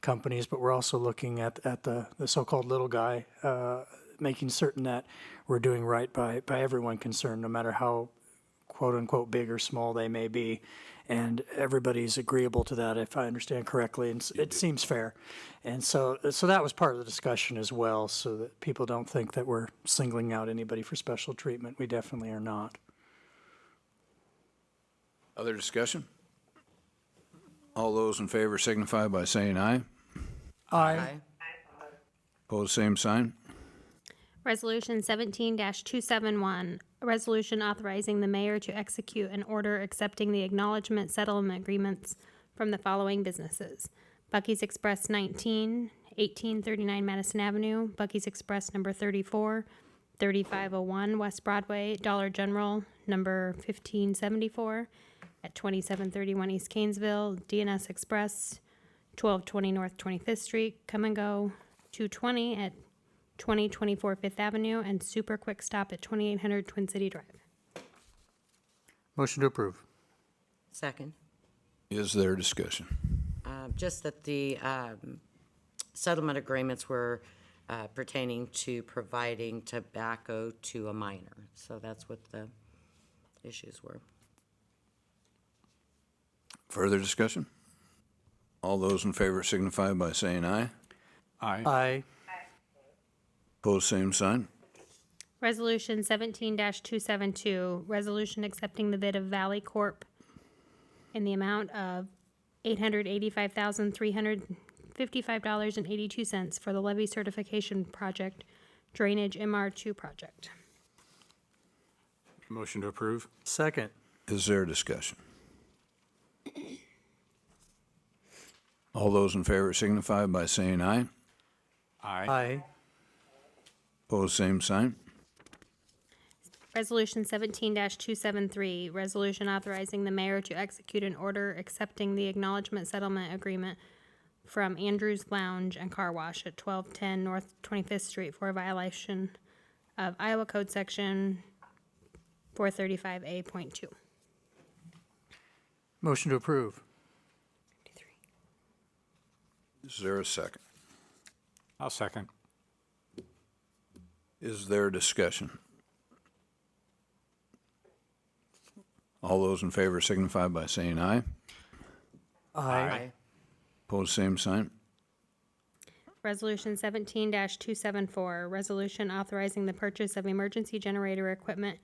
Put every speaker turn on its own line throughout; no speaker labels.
companies, but we're also looking at, at the, the so-called little guy, uh, making certain that we're doing right by, by everyone concerned, no matter how quote unquote big or small they may be. And everybody's agreeable to that, if I understand correctly, and s- it seems fair. And so, so that was part of the discussion as well, so that people don't think that we're singling out anybody for special treatment. We definitely are not.
Other discussion? All those in favor signify by saying aye.
Aye.
Pose same sign.
Resolution seventeen two seven one, a resolution authorizing the mayor to execute an order accepting the acknowledgement settlement agreements from the following businesses. Bucky's Express 19, 1839 Madison Avenue, Bucky's Express number 34, 3501 West Broadway, Dollar General number fifteen seventy-four at twenty-seven thirty-one East Canesville, DNS Express, twelve twenty North Twenty-Fifth Street, Come and Go, two twenty at 2024 Fifth Avenue and Super Quick Stop at 2800 Twin City Drive.
Motion to approve.
Second.
Is there discussion?
Uh, Just that the um, settlement agreements were uh, pertaining to providing tobacco to a minor. So that's what the issues were.
Further discussion? All those in favor signify by saying aye.
Aye.
Aye.
Pose same sign.
Resolution 17-272, resolution accepting the bid of Valley Corp in the amount of $885,355.82 for the levy certification project drainage MR2 project.
Motion to approve.
Second.
Is there discussion? All those in favor signify by saying aye.
Aye.
Aye.
Pose same sign.
Resolution seventeen two seven three, resolution authorizing the mayor to execute an order accepting the acknowledgement settlement agreement from Andrews Lounge and Car Wash at twelve ten North Twenty-Fifth Street for a violation of Iowa Code Section four thirty-five A point two.
Motion to approve.
Is there a second?
I'll second.
Is there discussion? All those in favor signify by saying aye.
Aye.
Pose same sign.
Resolution seventeen two seven four, resolution authorizing the purchase of emergency generator equipment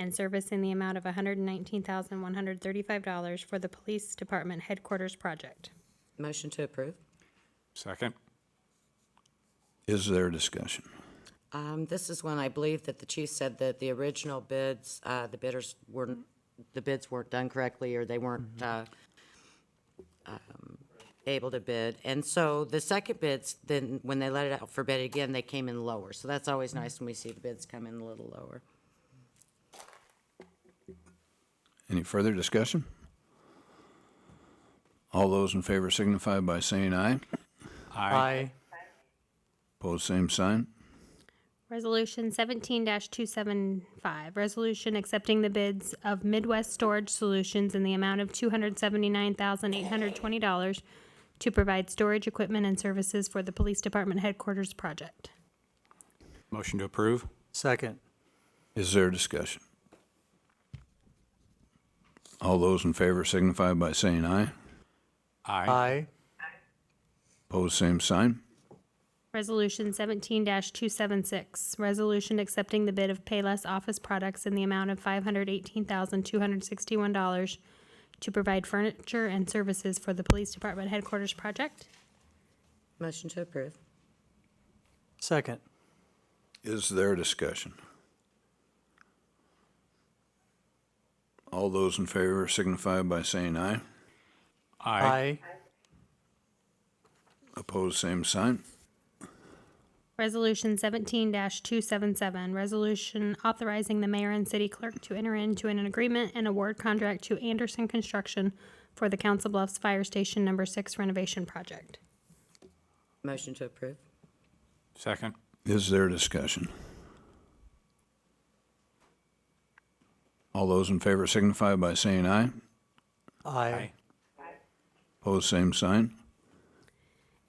and service in the amount of hundred and nineteen thousand, one hundred thirty-five dollars for the Police Department Headquarters Project.
Motion to approve.
Second.
Is there discussion?
Um, This is when I believe that the chief said that the original bids, uh, the bidders weren't, the bids weren't done correctly, or they weren't uh, um, able to bid. And so the second bids, then, when they let it out for bid again, they came in lower. So that's always nice when we see the bids come in a little lower.
Any further discussion? All those in favor signify by saying aye.
Aye.
Pose same sign.
Resolution seventeen two seven five, resolution accepting the bids of Midwest Storage Solutions in the amount of two hundred seventy-nine thousand eight hundred twenty dollars to provide storage equipment and services for the Police Department Headquarters Project.
Motion to approve.
Second.
Is there discussion? All those in favor signify by saying aye.
Aye.
Pose same sign.
Resolution seventeen two seven six, resolution accepting the bid of Payless Office Products in the amount of five hundred eighteen thousand two hundred sixty-one dollars to provide furniture and services for the Police Department Headquarters Project.
Motion to approve.
Second.
Is there discussion? All those in favor signify by saying aye.
Aye.
Opposed, same sign.
Resolution seventeen two seven seven, resolution authorizing the mayor and city clerk to enter into an agreement and award contract to Anderson Construction for the Council Bluffs Fire Station Number Six renovation project.
Motion to approve.
Second.
Is there discussion? All those in favor signify by saying aye.
Aye.
Opposed, same sign.